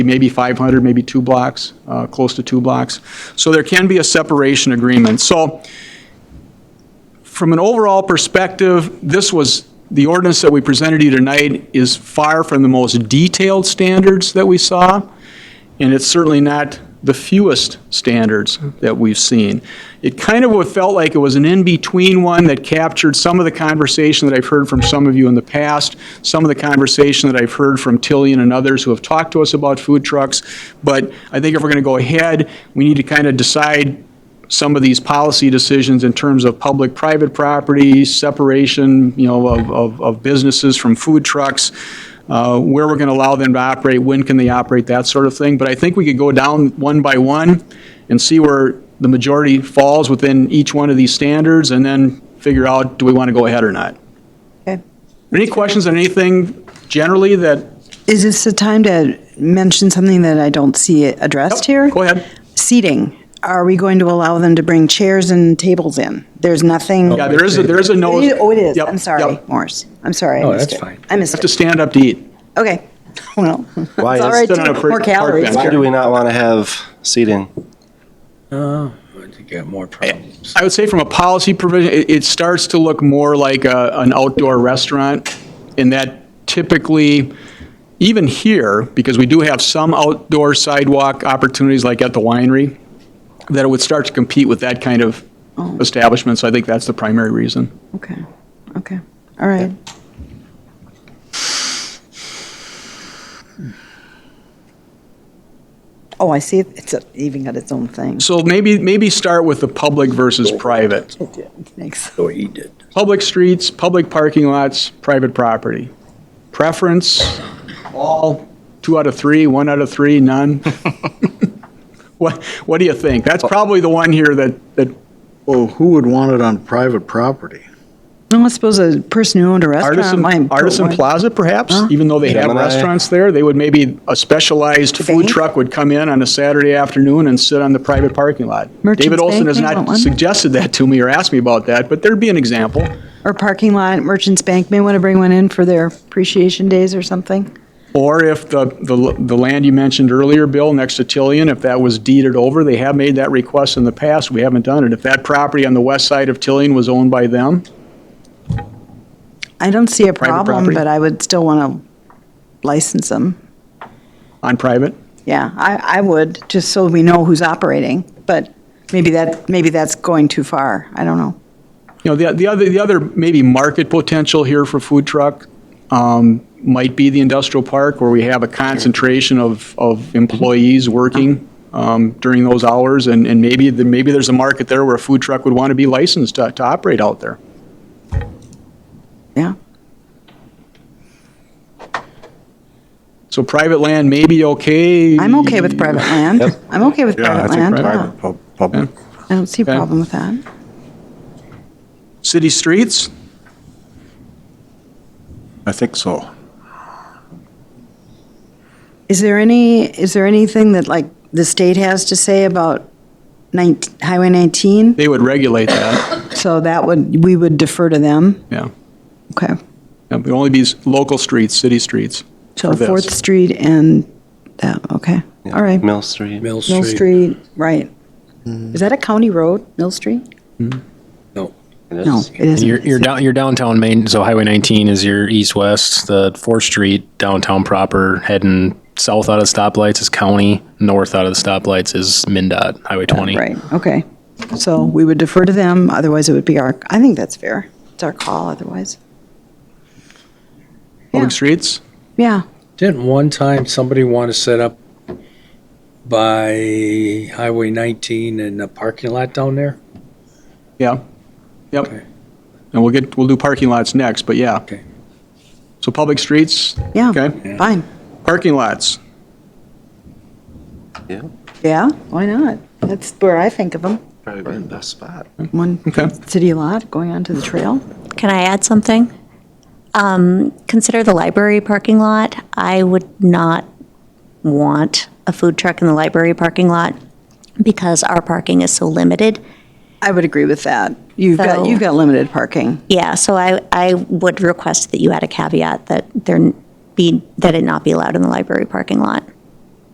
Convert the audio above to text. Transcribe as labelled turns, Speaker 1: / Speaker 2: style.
Speaker 1: maybe 500, maybe two blocks, uh, close to two blocks. So there can be a separation agreement. So from an overall perspective, this was, the ordinance that we presented you tonight is far from the most detailed standards that we saw, and it's certainly not the fewest standards that we've seen. It kind of felt like it was an in-between one that captured some of the conversation that I've heard from some of you in the past, some of the conversation that I've heard from Tillian and others who have talked to us about food trucks. But I think if we're going to go ahead, we need to kind of decide some of these policy decisions in terms of public-private property, separation, you know, of- of, of businesses from food trucks, uh, where we're going to allow them to operate, when can they operate, that sort of thing. But I think we could go down one by one and see where the majority falls within each one of these standards, and then figure out, do we want to go ahead or not?
Speaker 2: Okay.
Speaker 1: Any questions on anything generally that?
Speaker 2: Is this the time to mention something that I don't see addressed here?
Speaker 1: Go ahead.
Speaker 2: Seating. Are we going to allow them to bring chairs and tables in? There's nothing.
Speaker 1: Yeah, there is, a- there is a no.
Speaker 2: Oh, it is.
Speaker 1: Yep,
Speaker 2: I'm sorry,
Speaker 1: yep.
Speaker 2: Morris. I'm sorry. I
Speaker 3: No,
Speaker 2: missed
Speaker 3: Oh, that's
Speaker 2: it.
Speaker 3: fine.
Speaker 2: I missed
Speaker 1: Have to
Speaker 2: it.
Speaker 1: stand up to eat.
Speaker 2: Okay. Well, it's all
Speaker 4: Why is-
Speaker 2: right.
Speaker 1: Stood on a
Speaker 2: too.
Speaker 1: park-
Speaker 2: More
Speaker 1: park
Speaker 2: calories.
Speaker 1: bench.
Speaker 4: Why do we not want to have seating?
Speaker 3: I think you got more problems.
Speaker 1: I would say from a policy provision, it, it starts to look more like a, an outdoor restaurant in that typically, even here, because we do have some outdoor sidewalk opportunities like at the winery, that it would start to compete with that kind of establishment. So I think that's the primary reason.
Speaker 2: Okay, okay, all right. Oh, I see, it's a- even got its own thing.
Speaker 1: So maybe, maybe start with the public versus private.
Speaker 2: Thanks.
Speaker 3: So he did.
Speaker 1: Public streets, public parking lots, private property. Preference, all, two out of three, one out of three, none? What, what do you think? That's probably the one here that, that,
Speaker 5: Well, who would want it on private property?
Speaker 2: No, I suppose a person who owned a restaurant
Speaker 1: Artisan,
Speaker 2: might. put
Speaker 1: Artisan
Speaker 2: one-
Speaker 1: Plaza perhaps, even though they have
Speaker 4: Gemini.
Speaker 1: restaurants there, they would maybe, a specialized food
Speaker 2: bank?
Speaker 1: truck would come in on a Saturday afternoon and sit on the private parking lot. David
Speaker 2: Merchants
Speaker 1: Olson
Speaker 2: Bank
Speaker 1: has
Speaker 2: may want
Speaker 1: not
Speaker 2: one.
Speaker 1: suggested that to me or asked me about that, but there'd be an example.
Speaker 2: Or parking lot, Merchants Bank may want to bring one in for their appreciation days or something.
Speaker 1: Or if the, the the land you mentioned earlier, Bill, next to Tillian, if that was deeded over, they have made that request in the past, we haven't done it. If that property on the west side of Tillian was owned by them,
Speaker 2: I don't see a problem,
Speaker 1: property.
Speaker 2: but I would still want to license them.
Speaker 1: on private,
Speaker 2: Yeah, I, I would, just so we know who's operating, but maybe that, maybe that's going too far, I don't know.
Speaker 1: you know, the the other, the other maybe market potential here for food truck um, might be the industrial park, where we have a concentration of, of employees working um, during those hours, and, and maybe, the- maybe there's a market there where a food truck would want to be licensed to to operate out there.
Speaker 2: Yeah,
Speaker 1: So private land may be okay.
Speaker 2: I'm okay with private land. I'm okay with private land. yeah.
Speaker 5: public.
Speaker 2: I don't see a
Speaker 1: Okay.
Speaker 2: problem with that.
Speaker 1: City streets?
Speaker 5: I think so.
Speaker 2: Is there any, is there anything that like the state has to say about 19, Highway 19?
Speaker 1: They would regulate that,
Speaker 2: So that would, we would defer to them?
Speaker 1: yeah.
Speaker 2: Okay.
Speaker 1: It would only be s- local streets, city streets.
Speaker 2: So
Speaker 1: for this.
Speaker 2: Fourth Street and that, okay, all right.
Speaker 4: Mill Street.
Speaker 3: Mill
Speaker 2: Mill
Speaker 3: Street.
Speaker 2: Street, right. Is that a county road, Mill Street?
Speaker 3: No.
Speaker 4: It
Speaker 2: No,
Speaker 4: is.
Speaker 2: it isn't.
Speaker 6: Your, your, down, your downtown main, so Highway 19 is your east-west, the 4th Street downtown proper, heading south out of the stoplights is county, north out of the stoplights is MinDOT, Highway 20.
Speaker 2: Right, okay. So we would defer to them, otherwise it would be our, I think that's fair. It's our call otherwise. Yeah.
Speaker 1: Public streets?
Speaker 2: Yeah,
Speaker 3: Didn't one time somebody want to set up by Highway 19 and a parking lot down there?
Speaker 1: Yeah, yep.
Speaker 3: Okay.
Speaker 1: And we'll get, we'll do parking lots next, but yeah.
Speaker 3: Okay.
Speaker 1: So public streets?
Speaker 2: yeah,
Speaker 1: Okay.
Speaker 2: fine.
Speaker 1: Parking lots?
Speaker 4: Yeah,
Speaker 2: Yeah, why not? That's where I think of them.
Speaker 4: probably the best spot.
Speaker 2: One
Speaker 1: Okay.
Speaker 2: city lot going onto the trail.
Speaker 7: Can I add something? Um, Consider the library parking lot. I would not want a food truck in the library parking lot because our parking is so limited.
Speaker 2: I would agree with that. You've got,
Speaker 7: So-
Speaker 2: you've got limited parking.
Speaker 7: Yeah, so I, I would request that you add a caveat that there be, that it not be allowed in the library parking lot.